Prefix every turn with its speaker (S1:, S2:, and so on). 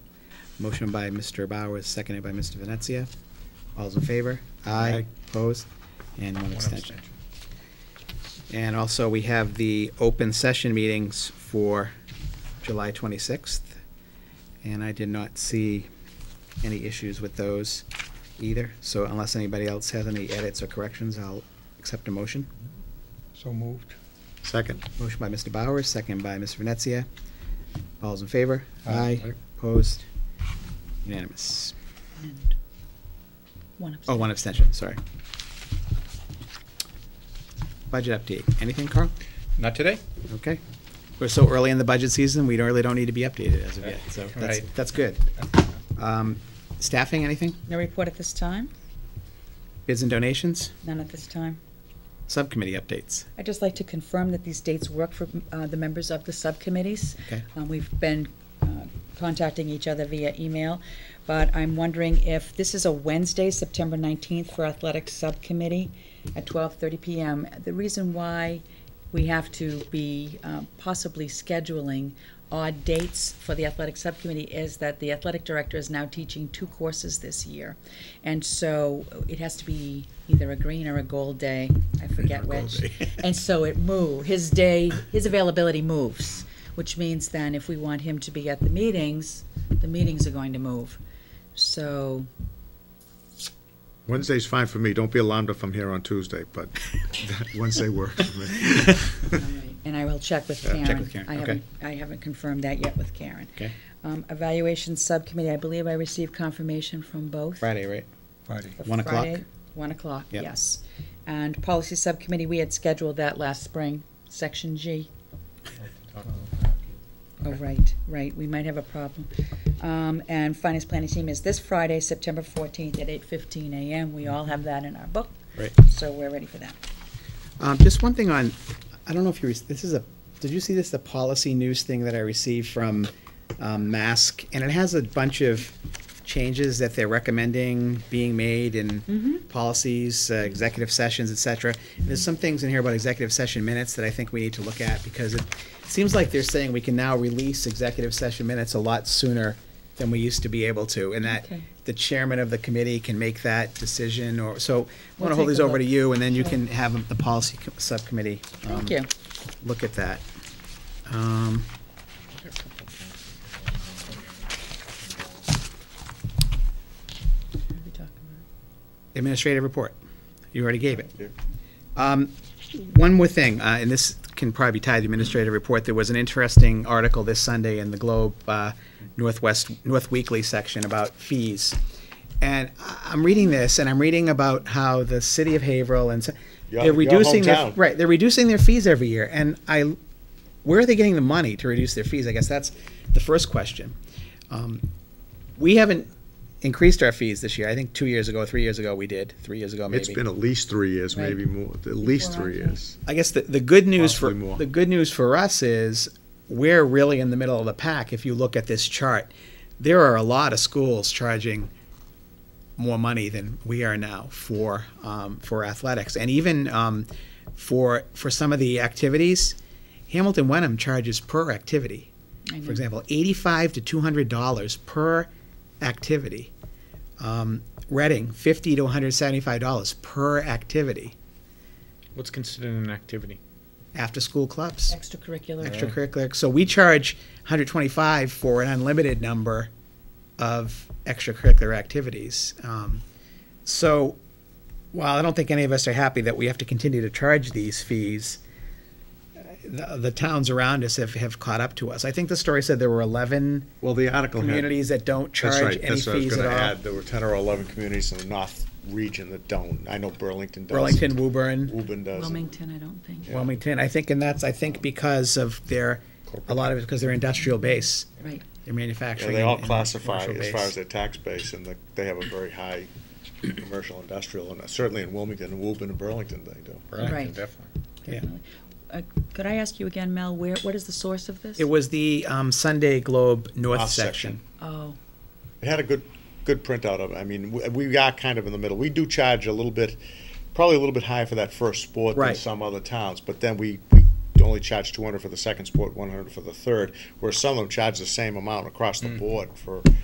S1: Motion by Mr. Bowers, seconded by Mr. Venezia. All's in favor? Aye.
S2: Aye.
S1: Opposed? And one
S2: One
S1: abstention.
S2: abstention.
S1: And also, we have the open session meetings for July 26th. And I did not see any issues with those either. So unless anybody else has any edits or corrections, I'll accept a motion.
S2: So moved.
S3: Second.
S1: Motion by Mr. Bowers, second by Mr. Venezia. All's in favor?
S2: Aye.
S1: Opposed? Unanimous.
S4: And one
S1: Oh,
S4: abstention.
S1: one abstention, sorry. Budget update. Anything, Carl?
S5: Not today.
S1: Okay. We're so early in the budget season, we don't, really don't need to be updated as of yet, so that's,
S5: Right.
S1: that's good. Um, Staffing, anything?
S4: No report at this time?
S1: Bids and donations?
S4: None at this time?
S1: Subcommittee updates?
S4: I'd just like to confirm that these dates work for uh, the members of the subcommittees.
S1: Okay.
S4: Um, We've been uh, contacting each other via email, but I'm wondering if, this is a Wednesday, September 19th, for Athletics Subcommittee at 12:30 PM. The reason why we have to be uh, possibly scheduling odd dates for the athletic subcommittee is that the athletic director is now teaching two courses this year. And so it has to be either a green or a gold day, I forget which. And so it move, his day, his availability moves, which means then if we want him to be at the meetings, the meetings are going to move. So,
S3: Wednesday's fine for me. Don't be alarmed if I'm here on Tuesday, but Wednesday works for me.
S4: and I will check with
S1: Yeah,
S4: Karen.
S1: Uh, check with Karen,
S4: I
S1: okay.
S4: haven't- I haven't confirmed that yet with Karen.
S1: Okay.
S4: Um, Evaluation Subcommittee, I believe I received confirmation from both.
S1: Friday, right?
S2: Friday.
S4: for
S1: One o'clock?
S4: Friday, One o'clock,
S1: Yep.
S4: yes. And Policy Subcommittee, we had scheduled that last spring, Section G. Oh, right, right, we might have a problem. Um, and Finance Planning Team is this Friday, September fourteenth at eight fifteen AM. We all have that in our book,
S1: Right.
S4: so we're ready for that.
S1: Um, Just one thing on, I don't know if you, rec- this is a, did you see this, the policy news thing that I received from um, Mask? And it has a bunch of changes that they're recommending being made
S4: Mm-hmm.
S1: in policies, uh, executive sessions, et cetera. And There's some things in here about executive session minutes that I think we need to look at because it seems like they're saying we can now release executive session minutes a lot sooner than we used to be able to. And that
S4: Okay.
S1: the chairman of the committee can make that decision or, so I
S4: We'll
S1: want to hold
S4: take
S1: these
S4: a
S1: over to
S4: look.
S1: you and then you
S4: Sure.
S1: can have the policy co- subcommittee. um,
S4: Thank you.
S1: Look at that. Um,
S4: What are we talking about?
S1: Um, Administrative report. You already gave it. Um, One more thing, uh, and this can probably tie to the administrative report. There was an interesting article this Sunday in the Globe uh, Northwest, North Weekly section about fees. And I- I'm reading this, and I'm reading about how the city of Haverhill and, so-
S3: Your-
S1: they're
S3: your
S1: reducing their,
S3: hometown.
S1: right, they're reducing their fees every year. And I, where are they getting the money to reduce their fees? I guess that's the first question. Um, We haven't increased our fees this year. I think two years ago, three years ago, we did, three years ago, maybe.
S3: It's been at least three years,
S4: Right.
S3: maybe more, at least
S4: Before I
S3: three
S4: came.
S3: years.
S1: I guess the, the good news for
S3: Possibly more.
S1: the good news for us is we're really in the middle of the pack. If you look at this chart, there are a lot of schools charging more money than we are now for um, for athletics, and even um, for for some of the activities. Hamilton Wenham charges per activity.
S4: I know.
S1: For example, eighty-five to two hundred dollars per activity. Um, Reading, fifty to one hundred seventy-five dollars per activity.
S5: What's considered an activity?
S1: After-school clubs
S4: Extracurricular.
S1: extracurricular. So we charge 125 for an unlimited number of extracurricular activities. Um, so while I don't think any of us are happy that we have to continue to charge these fees, the, the towns around us have, have caught up to us. I think the story said there were 11
S3: Well, the article had.
S1: communities that don't charge
S3: That's right.
S1: any
S3: That's what I was
S1: fees
S3: gonna
S1: at all.
S3: add. There were ten or eleven communities in the north region that don't. I know Burlington does.
S1: Burlington, Woburn,
S3: Woburn does.
S4: Wilmington, I don't think.
S1: Wilmington. I think, and that's I think because of their a lot of it because their industrial base,
S4: Right.
S1: their manufacturing.
S3: Yeah, they all
S1: and
S3: classify
S1: commercial
S3: as far
S1: base.
S3: as their tax base, and the- they have a very high commercial industrial, and certainly in Wilmington, Woburn, and Burlington, they do.
S4: Right.
S5: Definitely.
S1: Yeah.
S4: Uh, Could I ask you again, Mel, where, what is the source of this?
S1: It was the um, Sunday Globe North
S3: North
S1: section.
S3: section.
S4: Oh,
S3: It had a good, good printout of it. I mean, we, we are kind of in the middle. We do charge a little bit, probably a little bit higher for that first sport than
S1: Right.
S3: some other towns, but then we, we only charge two hundred for the second sport, one hundred for the third, where some of them charge the same amount across the board for